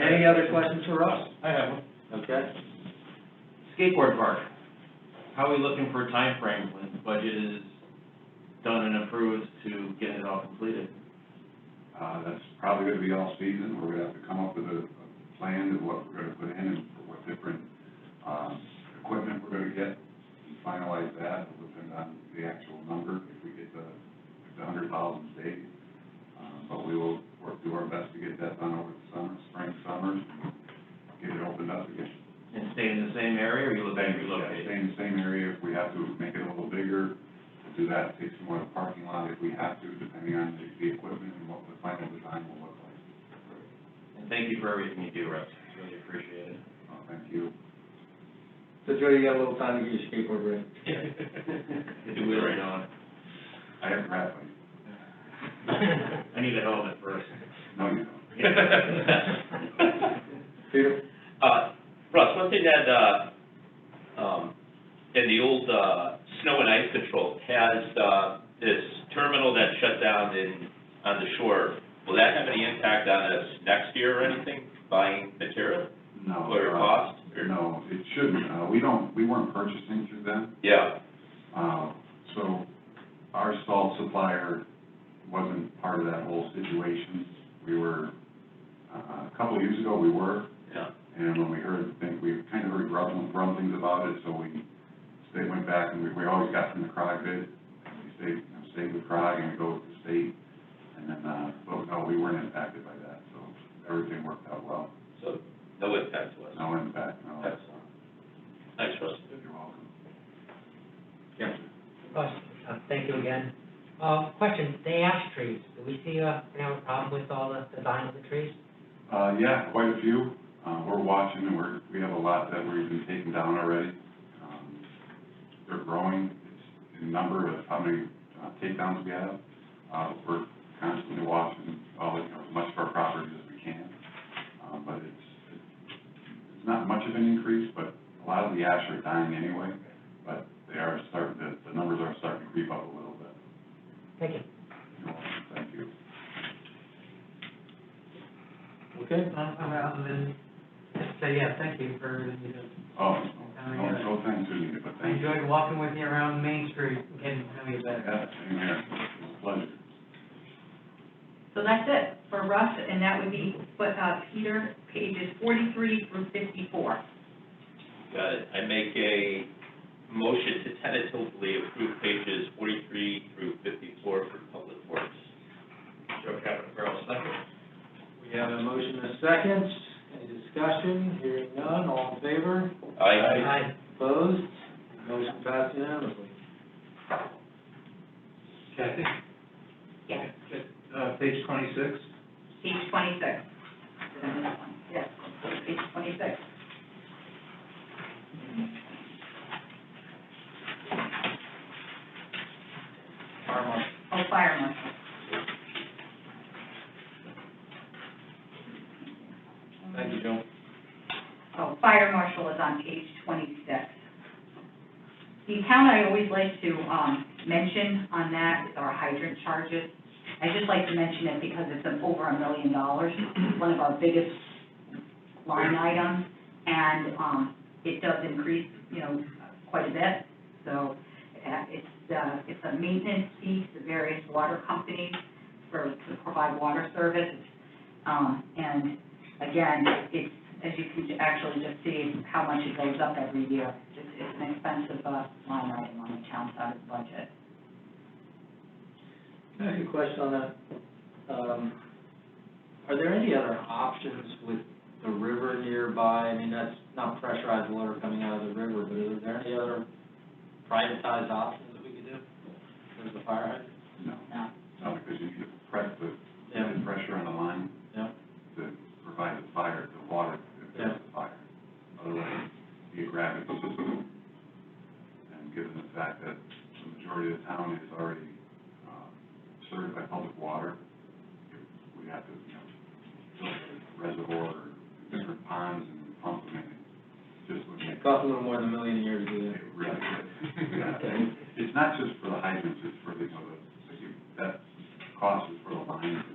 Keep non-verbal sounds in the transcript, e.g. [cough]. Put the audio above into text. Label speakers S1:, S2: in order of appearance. S1: Any other questions for us?
S2: I have one.
S1: Okay.
S2: Skateboard park, how are we looking for a time frame when the budget is done and approved to get it all completed?
S3: Uh, that's probably gonna be all season, we're gonna have to come up with a, a plan of what we're gonna put in and for what different, um, equipment we're gonna get. and Finalize that, it'll depend on the actual number, if we get the, if the hundred thousand stayed. Um, but we will work, do our best to get that done over the summer, spring, summer, and get it opened up again.
S2: And stay in the same area, or you look at relocating?
S3: Same, same area, if we have to make it a little bigger, we'll do that, take some more of the parking lot if we have to, depending on the, the equipment and what the final design will look like.
S2: And thank you for everything you do, Russ, really appreciate it.
S3: Oh, Thank you.
S1: So Joe, you got a little time to get your skateboard ready.
S2: Get the wheel right on.
S3: I have graphite.
S2: I need a helmet first.
S3: No, you don't.
S1: Peter?
S4: Uh, Russ, one thing that, uh, um, in the old, uh, snow and ice control has, uh, this terminal that shut down in, on the shore. Will that have any impact on us next year or anything, buying material
S3: No.
S4: or
S3: uh,
S4: cost? or-
S3: No, it shouldn't. Uh, we don't, we weren't purchasing through them.
S4: Yeah,
S3: Uh, so our salt supplier wasn't part of that whole situation. We were, uh, a couple of years ago, we were,
S4: yeah,
S3: and when we heard, think, we kind of heard rumblings, rumblings about it, so we stayed, went back, and we, we always got from the CROG bid. We stayed, you know, stayed with CROG and we go with the state, and then, uh, but no, we weren't impacted by that, so everything worked out well.
S4: so no impact to us.
S3: No impact, no.
S4: Excellent. Thanks, Russ.
S3: You're welcome.
S5: Russ, uh, thank you again. Uh, question, the ash trees, do we see a, you know, a problem with all the design of the trees?
S3: Uh, yeah, quite a few. Uh, we're watching and we're, we have a lot that we've been taking down already. Um, They're growing, it's the number of how many uh, takedowns we have. Uh, we're constantly watching all, the- you know, as much of our properties as we can. Um, but it's, it's not much of an increase, but a lot of the ash are dying anyway. But they are starting, the, the numbers are starting to creep up a little bit.
S5: Thank you.
S3: You're welcome. Thank you.
S1: Okay.
S6: Uh, Other than, um, just say, yeah, thank you for everything you did.
S3: Oh, no, no thanks, Anita, but
S6: I
S3: thank you.
S6: enjoyed walking with you around Main Street, and getting to know you better.
S3: Yeah, same here. It's a pleasure.
S7: So that's it for Russ, and that would be, but, uh, Peter, pages forty-three through fifty-four.
S4: Got it. I make a motion to tentatively approve pages forty-three through fifty-four for public works. Joe Capistrano, second.
S1: We have a motion and a second. Any discussion? Hearing none, all in favor?
S4: Aye.
S5: Aye.
S1: Opposed? Motion passed unanimously.
S2: Kathy?
S7: Yes,
S2: Uh, page twenty-six?
S7: page twenty-six. Did I miss one? Yes, page twenty-six. Fire marshal. Oh, fire marshal.
S1: Thank you, Joe.
S7: Oh, fire marshal is on page twenty-six. The account I always like to, um, mention on that is our hydrant charges. I just like to mention it because it's an over a million dollars, one of our biggest line items. And, um, it does increase, you know, quite a bit. So, uh, it's, uh, it's a maintenance fee to various water companies for, to provide water service. Um, and again, it's as you can actually just see how much it goes up every year. It's, it's an expensive, uh, line item on the town side of the budget.
S1: I have a question on that. Um, are there any other options with the river nearby? I mean, that's not pressurized water coming out of the river, but are there any other privatized options that we could do? There's the fire hydrant.
S3: No,
S7: No.
S3: no, because you need to press the,
S1: Yeah.
S3: the pressure on the line.
S1: Yeah.
S3: To provide the fire, the water, if there's a fire. Otherwise, you grab it. And given the fact that the majority of the town is already, um, served by public water, we have to, you know, build a reservoir, or different ponds and pump them in. Just would make
S1: It costs a little more than a million a year to do
S3: It
S1: that.
S3: really
S1: [laughs]
S3: is. Yeah, and It's not just for the hydrants, it's for the, you know, the, that cost is for the lines